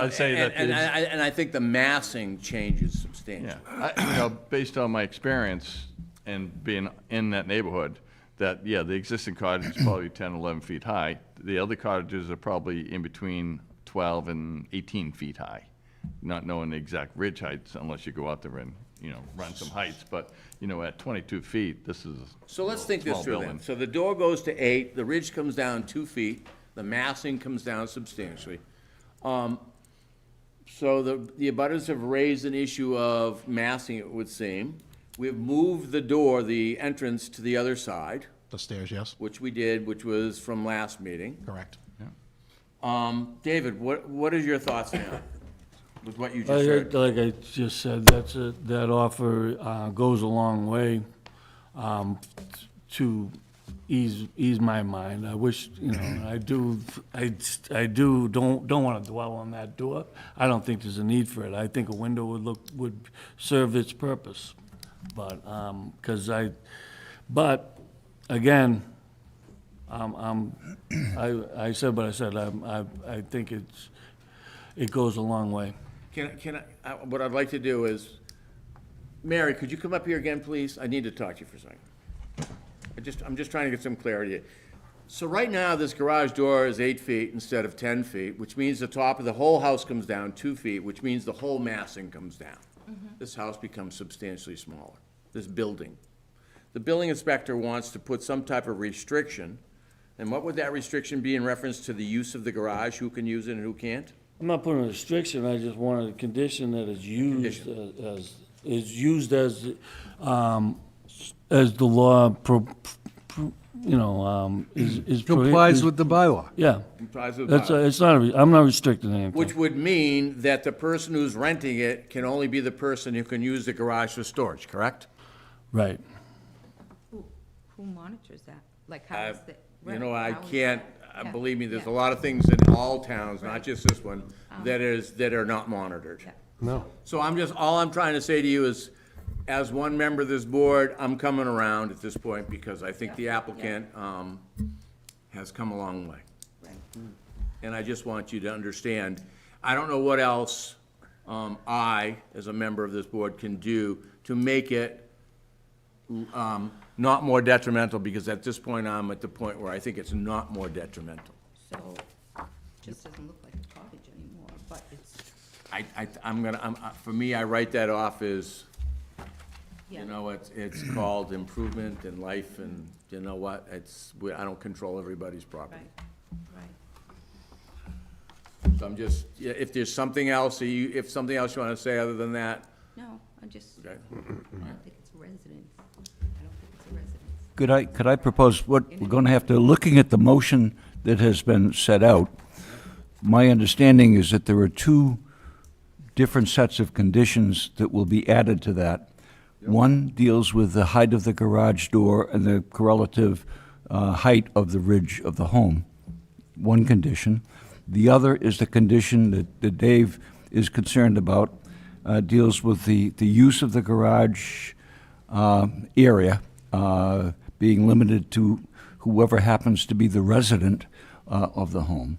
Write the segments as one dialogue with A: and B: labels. A: I'd say that
B: And, and
A: is-
B: I, and I think the massing changes substantially.
A: Yeah, I, you know, based on my experience and being in that neighborhood, that, yeah, the existing cottage is probably 10, 11 feet high. The other cottages are probably in between 12 and 18 feet high, not knowing the exact ridge heights unless you go out there and, you know, run some heights. But, you know, at 22 feet, this is.
B: So let's think this
A: small
B: through then.
A: building.
B: So the door goes to eight, the ridge comes down two feet, the massing comes down substantially. Um, So the, the abutters have raised an issue of massing, it would seem. We've moved the door, the entrance to the other side,
C: The stairs, yes,
B: which we did, which was from last meeting.
C: correct.
B: Um, David, what, what are your thoughts now with what you
D: Like
B: just
D: I,
B: heard?
D: like I just said, that's a, that offer, uh, goes a long way, um, to ease, ease my mind. I wish, you know, I do, I, I do, don't, don't wanna dwell on that door. I don't think there's a need for it. I think a window would look, would serve its purpose. But, um 'cause cause I, but, again, I'm, I'm, I, I said what I said, I, I, I think it's, it goes a long way.
B: Can, I- can I, I- uh, what I'd like to do is, Mary, could you come up here again, please? I need to talk to you for a second. I just, I'm just trying to get some clarity. So right now, this garage door is eight feet instead of 10 feet, which means the top of the whole house comes down two feet, which means the whole massing comes down. This house becomes substantially smaller, this building. The building inspector wants to put some type of restriction, and what would that restriction be in reference to the use of the garage, who can use it and who can't?
D: I'm not putting a restriction, I just wanted a condition that is used as, is used as, um, as the law pro, pro- you know, um, is, is. prohi-
E: Complies
D: is-
E: with the bylaw.
D: Yeah,
B: Comprise of
D: that's,
B: bylaw.
D: it's not, a re- I'm not restricting anything,
B: Which would mean that the person who's renting it can only be the person who can use the garage for storage, correct?
D: right.
F: Who, who monitors that? Like, how is that?
B: You know,
F: right,
B: I
F: how is
B: can't,
F: that?
B: uh,
F: Yeah,
B: believe me, there's a
F: yeah, Um.
B: lot of things in all towns, not just this one, that is, that are not monitored.
F: yeah.
E: No.
B: So I'm just, all I'm trying to say to you is, as one member of this board, I'm coming around at this point because I think the applicant um, has come a long way. And I just want you to understand, I don't know what else um, I, as a member of this board, can do to make it um, not more detrimental, because at this point, I'm at the point where I think it's not more detrimental.
F: So, just doesn't look like a cottage anymore, but it's,
B: I, I, I'm gonna, I'm, I- for me, I write that off as You
F: yeah,
B: know, it's, it's called improvement in life, and you know what, it's, we- I don't control everybody's
F: right,
B: property.
F: right.
B: So I'm just, yeah, if there's something else, that you, if something else you wanna say other than that,
F: No, I just, I
B: okay.
F: don't think it's a residence. I don't think it's a residence.
G: Could I, could I propose, what, we're going to have to, looking at the motion that has been set out, my understanding is that there are two different sets of conditions that will be added to that. One deals with the height of the garage door and the correlative uh, height of the ridge of the home, one condition. The other is the condition that that Dave is concerned about, uh, deals with the, the use of the garage uh, area uh, being limited to whoever happens to be the resident uh, of the home.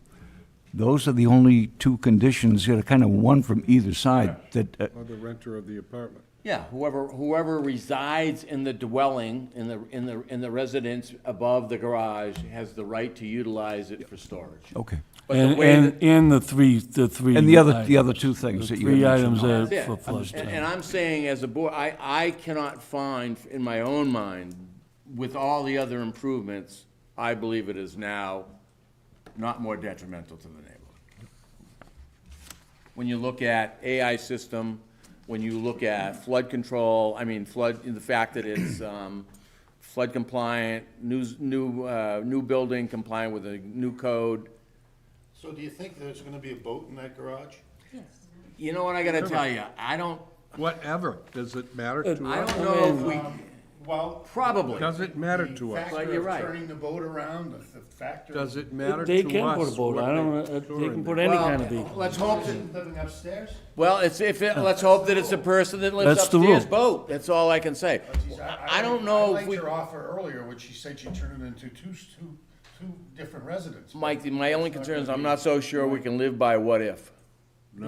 G: Those are the only two conditions, you know, kind of one from either side that, uh,
E: Or the renter of the apartment.
B: Yeah, whoever, whoever resides in the dwelling, in the, in the, in the residence above the garage, has the right to utilize it for storage.
G: okay.
B: But the
D: And,
B: way
D: and, and the three, the three.
G: And the other, the
D: items.
G: other two things
D: The
G: that you
D: three
G: had
D: items
G: mentioned.
D: are
B: That's
D: for
B: it.
D: flush
B: And-
D: town.
B: And I'm saying, as a board, I, I cannot find in my own mind, with all the other improvements, I believe it is now not more detrimental to the neighborhood. When you look at AI system, when you look at flood control, I mean flood, the fact that it's um, flood compliant, new, s- new, uh, new building compliant with a new code.
H: So do you think there's gonna be a boat in that garage?
F: Yes.
B: You know what I gotta tell you? I don't,
E: Whatever, does it matter to
B: I
E: us?
B: don't know if
H: uh,
B: we,
H: Well.
B: probably.
E: Does it matter
H: Um, the
E: to us?
H: factor
B: Well, you're
H: of
B: right.
H: Turning the boat around, the the factor.
E: Does it matter to us?
D: They can put a boat,
E: what
D: I don't,
E: they
D: uh,
E: store
D: they
E: in
D: can
E: there?
D: put any kind of
B: Well,
D: vehicle.
B: let's hope that,
H: Person living upstairs?
B: well, it's, if, it- let's hope that it's the person that lives
D: That's the rule.
B: upstairs boat, that's all I can say.
H: Geez,
B: I don't know if
H: I liked
B: we,
H: your offer earlier, when she said she turned it into two, s- two, two different residences.
B: Mike, my only concern is I'm not so sure we can live by what if.